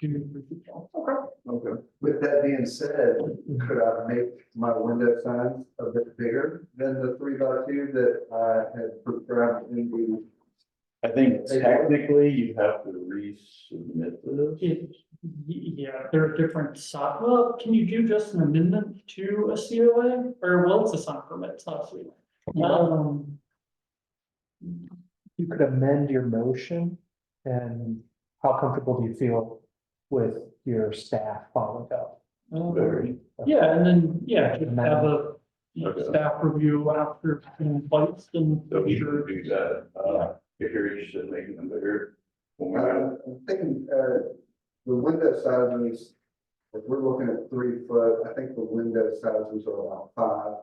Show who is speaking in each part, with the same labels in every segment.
Speaker 1: two, three people.
Speaker 2: Okay, with that being said, could I make my window signs a bit bigger than the three by two that I had programmed in the?
Speaker 3: I think technically you have to resubmit this.
Speaker 1: It, y- yeah, there are different so, well, can you do just an amendment to a COA or well, it's a sign permit, it's not a COA. Um,
Speaker 4: You could amend your motion and how comfortable do you feel with your staff following up?
Speaker 1: um,
Speaker 3: Very.
Speaker 1: yeah, and then, yeah, just have a you know,
Speaker 3: Okay.
Speaker 1: staff review after between bites and.
Speaker 3: So we should do that, uh, if you're interested in making them bigger. when we're out.
Speaker 2: Uh, I'm I'm thinking, uh, the window sizes, if we're looking at three foot, I think the window sizes are about five.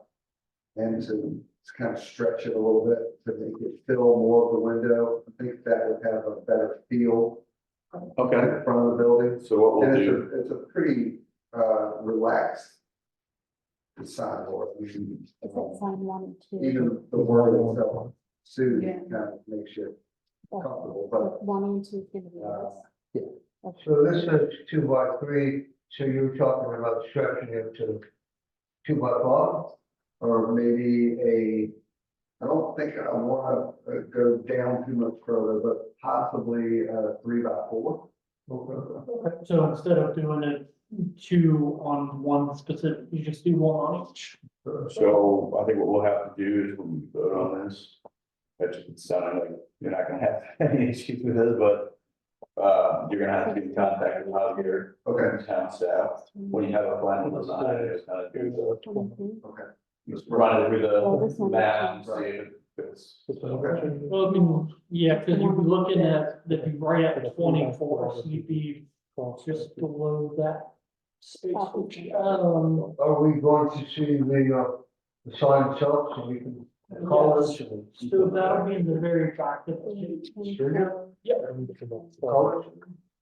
Speaker 2: And to to kind of stretch it a little bit, to make it fill more of the window, I think that would have a better feel
Speaker 3: Okay,
Speaker 2: in front of the building.
Speaker 3: so what we'll
Speaker 2: And it's
Speaker 3: do,
Speaker 2: a, it's a pretty, uh, relaxed sidewalk. We can,
Speaker 5: Is that
Speaker 2: um,
Speaker 5: sign one, two,
Speaker 2: Even the word itself,
Speaker 5: Yeah.
Speaker 2: soon, kind of makes you
Speaker 5: or
Speaker 2: comfortable, but
Speaker 5: one and two, give it to us?
Speaker 4: yeah.
Speaker 5: Okay.
Speaker 6: So this is two by three, so you're talking about stretching it to two by five?
Speaker 2: or maybe a, I don't think I want to go down too much further, but possibly a three by four.
Speaker 1: So instead of doing it two on one specific, you just do one on each.
Speaker 3: so I think what we'll have to do is when we vote on this. That's sounding like you're not gonna have any issues with this, but. Uh, you're gonna have to be contacted with your
Speaker 2: Okay,
Speaker 3: town staff when you have a final design, just kind of do the,
Speaker 5: Twenty-three.
Speaker 3: just run it through
Speaker 5: Well, Oh, this
Speaker 3: the
Speaker 5: one-
Speaker 3: map and see if it's.
Speaker 1: Well, I mean, yeah, because you'd be looking at, if you right at twenty-four, so you'd be just below that space, which, um,
Speaker 6: Are we going to see the, uh, the sign itself so we can call
Speaker 1: yes.
Speaker 6: this and
Speaker 1: So that'll be in the very back of the page.
Speaker 5: Sure.
Speaker 6: call it?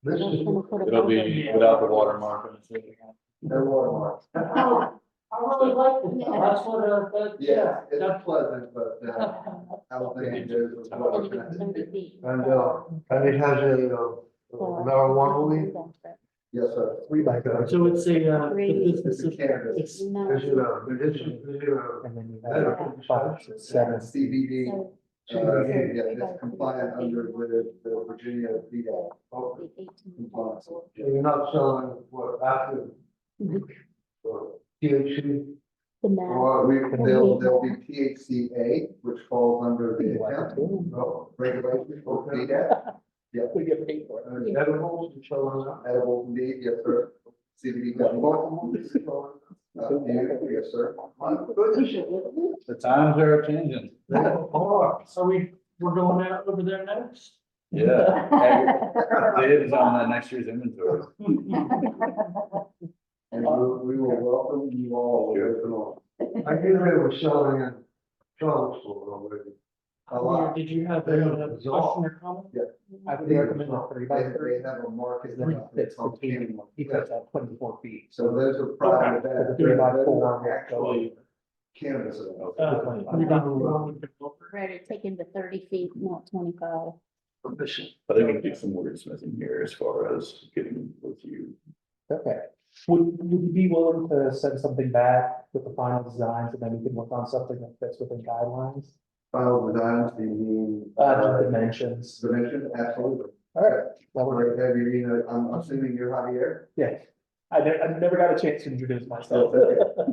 Speaker 6: This is,
Speaker 3: It'll be without the watermark.
Speaker 2: no watermark.
Speaker 1: Oh, I really like it, that's what, uh, that, yeah,
Speaker 2: Yeah, it's pleasant, but uh, I don't think it is. as well as that.
Speaker 6: And, uh, and it has a, uh, marijuana leaf,
Speaker 2: Yes, sir.
Speaker 4: Three by those,
Speaker 1: so it's a, uh, the
Speaker 5: Three.
Speaker 1: business is, it's
Speaker 6: is it
Speaker 2: uh,
Speaker 6: a, it is, is it a,
Speaker 4: and then you have five,
Speaker 6: medical
Speaker 4: seven,
Speaker 2: CBD. Uh, yeah, that's compliant under the, the Virginia VDA. compliance.
Speaker 6: you're not selling what after, or THC?
Speaker 5: The map.
Speaker 2: Or we, they'll, they'll be THCA, which falls under the account
Speaker 6: No.
Speaker 2: regulation for VDA,
Speaker 4: We get paid for
Speaker 6: Uh, Edibles and selling that?
Speaker 2: edible indeed, yes, sir. CBD gummy. Uh, you- yes, sir.
Speaker 3: The times are changing.
Speaker 6: They are.
Speaker 1: are we, we're going out over there next?
Speaker 3: Yeah. It is on the next year's inventory.
Speaker 2: And we, we will welcome you all with an arm.
Speaker 6: I knew they were selling in Charlottesville already.
Speaker 2: A lot.
Speaker 1: Did you have
Speaker 6: They have
Speaker 1: a question
Speaker 6: dissolved.
Speaker 1: or comment?
Speaker 4: I would recommend a three by
Speaker 2: They,
Speaker 4: three.
Speaker 2: they have a market.
Speaker 4: Three fits
Speaker 2: called
Speaker 4: between,
Speaker 2: Canyon.
Speaker 4: he puts out twenty-four feet.
Speaker 2: So those are private.
Speaker 4: So the three by four.
Speaker 2: Actually, cannabis.
Speaker 1: Uh, we got one with the book.
Speaker 5: Ready, taking the thirty feet, not twenty-five.
Speaker 3: I think we can do some wordsmithing here as far as getting with you.
Speaker 4: Okay, would, would you be willing to send something back with the final designs and then we can work on something that fits within guidelines?
Speaker 2: File designs, you mean?
Speaker 4: Uh, the dimensions,
Speaker 2: Submission, absolutely.
Speaker 4: all right, that
Speaker 2: All
Speaker 4: would,
Speaker 2: right, have you, you know, I'm assuming you're Javier?
Speaker 4: yeah. I ne- I never got a chance to introduce myself.
Speaker 3: uh,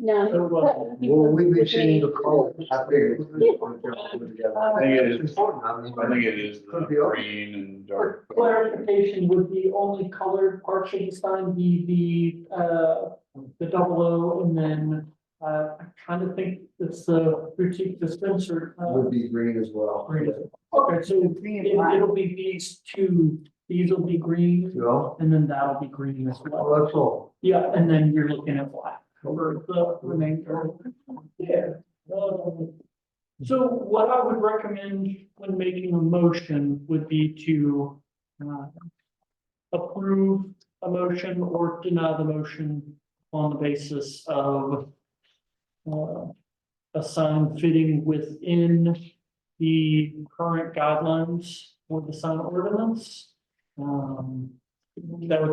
Speaker 5: No.
Speaker 1: Everyone.
Speaker 6: Will we be seeing the colors?
Speaker 2: I figured. Well,
Speaker 3: I think it
Speaker 6: It's
Speaker 3: is,
Speaker 6: important, I mean,
Speaker 3: I think it is the green and dark.
Speaker 1: Clarification, would the only colored part should the sign be the, uh, the double O and then, uh, I kind of think it's the boutique dispenser. uh,
Speaker 2: Would be green as well.
Speaker 1: green. Okay, so it- it'll be these two, these will be green,
Speaker 6: you know,
Speaker 1: and then that'll be green as well.
Speaker 6: well, that's all.
Speaker 1: Yeah, and then you're looking at black for the remainder. Yeah. um, So what I would recommend when making a motion would be to uh, approve a motion or deny the motion on the basis of uh, a sign fitting within the current guidelines for the sign ordinance. Um, That would